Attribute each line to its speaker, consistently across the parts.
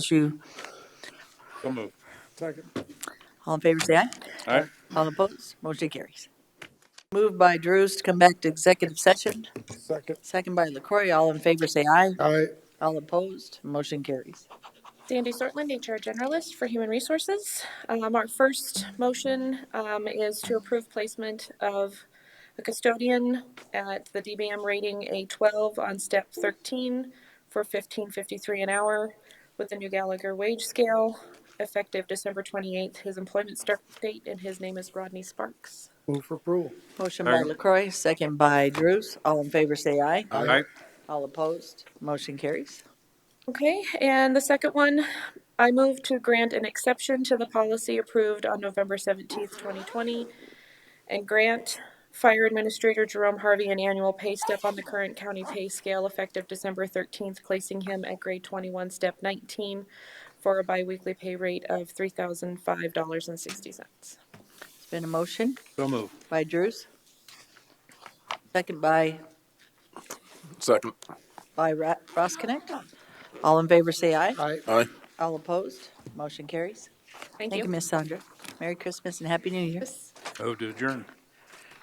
Speaker 1: issue.
Speaker 2: So moved.
Speaker 3: Second.
Speaker 1: All in favor, say aye.
Speaker 2: All right.
Speaker 1: All opposed, motion carries. Moved by Drews to come back to executive session,
Speaker 3: Second.
Speaker 1: second by LaCroy. All in favor, say aye.
Speaker 3: Aye.
Speaker 1: All opposed, motion carries.
Speaker 4: Sandy Sortland, HR Generalist for Human Resources. Um, Our first motion um, is to approve placement of a custodian at the DBM rating A12 on step 13 for 15.53 an hour with the new Gallagher wage scale effective December 28th. His employment start date and his name is Rodney Sparks.
Speaker 3: Move for approval.
Speaker 1: Motion by
Speaker 2: Second.
Speaker 1: LaCroy, second by Drews. All in favor, say aye.
Speaker 2: All right.
Speaker 1: All opposed, motion carries.
Speaker 4: Okay, and the second one, I move to grant an exception to the policy approved on November seventeenth, twenty twenty, and grant Fire Administrator Jerome Harvey an annual pay step on the current county pay scale effective December thirteenth, placing him at grade twenty-one, step nineteen, for a biweekly pay rate of three thousand five dollars and sixty cents.
Speaker 1: It's been a motion
Speaker 2: So moved.
Speaker 1: by Drews, second by,
Speaker 5: Second.
Speaker 1: by Ra- Ross Connect. All in favor, say aye.
Speaker 3: Aye.
Speaker 5: Aye.
Speaker 1: All opposed, motion carries.
Speaker 4: Thank
Speaker 1: Thank you,
Speaker 4: you.
Speaker 1: Miss Sandra. Merry Christmas and Happy New Year.
Speaker 2: Move to adjourn.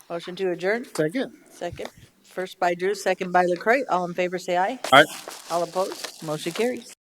Speaker 1: Motion to adjourn,
Speaker 3: Second.
Speaker 1: second. First by Drews, second by LaCroy. All in favor, say aye.
Speaker 2: All right.
Speaker 1: All opposed, motion carries.